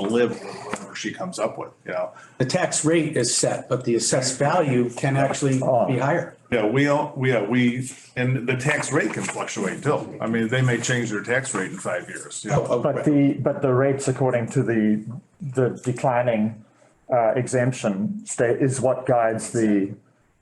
live with whatever she comes up with, you know? The tax rate is set, but the assessed value can actually Oh. be higher. Yeah, we all, we, yeah, we, and the tax rate can fluctuate too. I mean, they may change their tax rate in five years, you Oh, know? But the, but the rates according to the, the declining uh, exemption state is what guides the,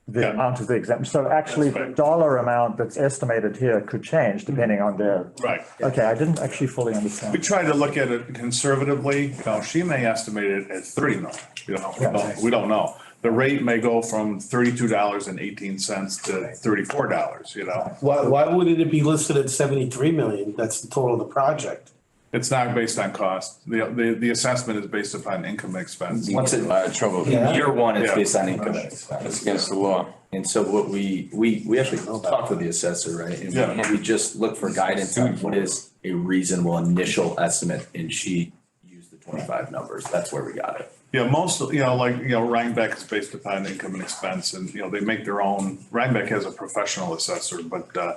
the Yeah. amount of the exemption. So actually, That's the right. dollar amount that's estimated here could change depending on their. Mm-hmm. Right. Okay, I didn't actually fully understand. We try to look at it conservatively. Now, she may estimate it at thirty million, you know, we don't- we don't know. The rate may go from thirty-two dollars and eighteen cents to thirty-four dollars, you know? Why, why wouldn't it be listed at seventy-three million? That's the total of the project. It's not based on cost. The, the, the assessment is based upon income and expense. What's in a lot of trouble. Yeah. Year one is Yeah. based on income. It's against the law. And so what we, we, we actually talked with the assessor, right? And we- Yeah. And we just look for guidance on what is a reasonable initial estimate and she used the twenty-five numbers. That's where we got it. Yeah, most, of- you know, like, you know, Rhinebeck is based upon income and expense and, you know, they make their own, Rhinebeck has a professional assessor, but, uh,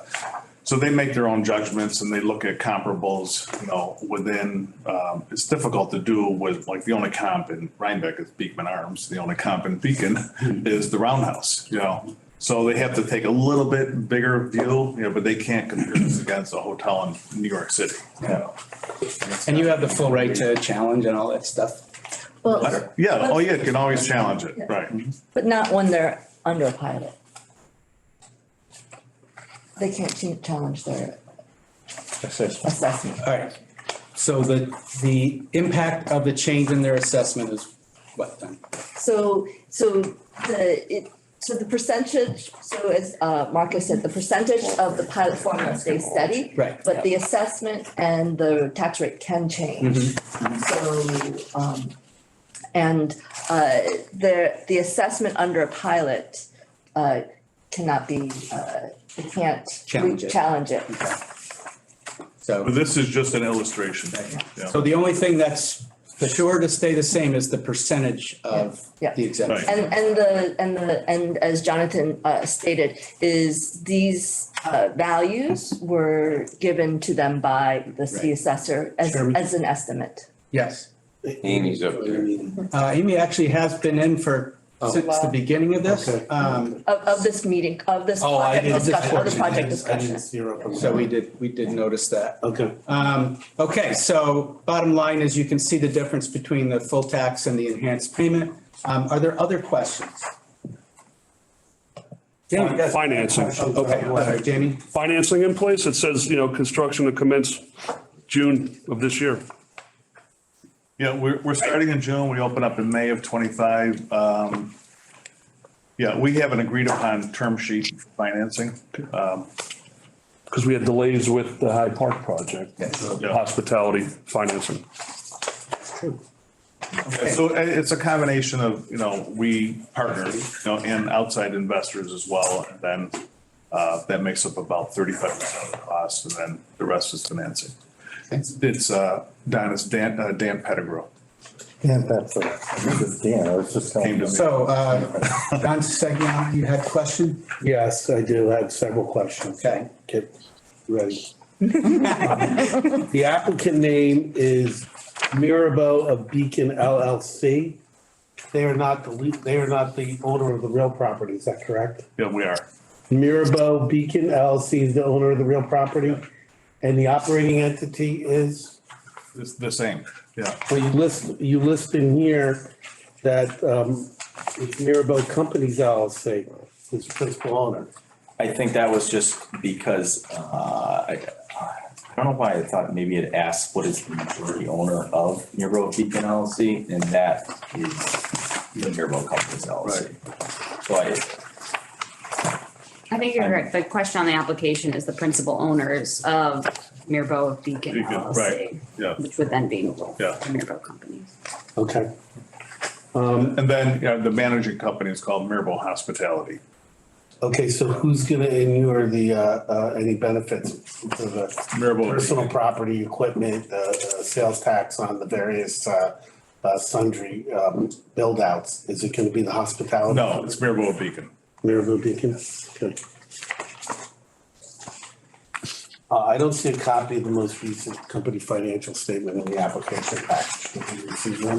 so they make their own judgments and they look at comparables, you know, within, um, it's difficult to do with, like, the only comp in Rhinebeck is Beekman Arms. The only comp in Beacon is the Roundhouse, you know? So they have to take a little bit bigger view, you know, but they can't compare this against a hotel in New York City, you know? And you have the full right to challenge and all that stuff. Well, Yeah, oh yeah, you can always challenge it, right? but not when they're under a pilot. They can't ch- challenge their assessment. All right. So the, the impact of the change in their assessment is what then? So, so the, it, so the percentage, so as uh, Marcus said, the percentage of the pilot formula stays steady. Right. But the assessment and the tax rate can change. Mm-hmm. So, um, and, uh, the, the assessment under a pilot, uh, cannot be, uh, it can't. Challenge it. Challenge it. But So, This is just an illustration. Yeah. so the only thing that's for sure to stay the same is the percentage of Yeah. the exemption. And, and the, and the, and as Jonathan uh, stated, is these uh, values were given to them by the city Right. assessor as, Chairman. as an estimate. Yes. Amy's up there. Uh, Amy actually has been in for, since the beginning of this. Okay. Um, Of, of this meeting, of this Oh, I project didn't- discussion, of the I project didn't- I discussion. didn't see her up on so that. we did, we did notice that. Okay. Um, okay, so bottom line is you can see the difference between the full tax and the enhanced payment. Um, are there other questions? Jamie, you got- Financing, Okay, all right, Jamie, financing in place, it says, you know, construction to commence June of this year. Yeah, we're, we're starting in June. We open up in May of twenty-five. Um, yeah, we haven't agreed upon term sheet financing. Um, Because we had delays with the Hyde Park project, Yeah. hospitality financing. so i- it's a combination of, you know, we partner, you know, and outside investors as well. And then, uh, that makes up about thirty-five percent of the cost and then the rest is financing. It's, it's, uh, Don, it's Dan, uh, Dan Pettigrew. Dan, that's, a- this is Dan, uh, I was just Came telling to you. me. so, uh, Don Segna, you had a question? Yes, I do have several questions. Okay. Get ready. Um, The applicant name is Mirabeau of Beacon LLC. They are not the, lea- they are not the owner of the real property, is that correct? Yeah, we are. Mirabeau Beacon LLC is the owner of the real property, and the operating entity is, It's the same. Yeah. well, you list, you list in here that um, it's Mirabeau Companies LLC is principal owner. I think that was just because, uh, I, I don't know why I thought maybe it asked what is the majority owner of Nearbo Beacon LLC, and that is the Nearbo Companies LLC. So I, I think you're correct. The question on the application is the principal owners of Mirbo Beacon Beacon, right, LLC. yeah. Which would then be Yeah. Mirbo Companies. Okay. And then, you know, the managing company is called Mirabel Hospitality. Okay, so who's gonna inure the, uh, uh, any benefits to the Mirabel. personal property, equipment, uh, uh, sales tax on the various, uh, uh, sundry, um, build outs? Is it gonna be the hospitality? No, it's Mirabel Beacon. Mayor Beacon, okay. Uh, I don't see a copy of the most recent company financial statement in the application package. Did you receive one?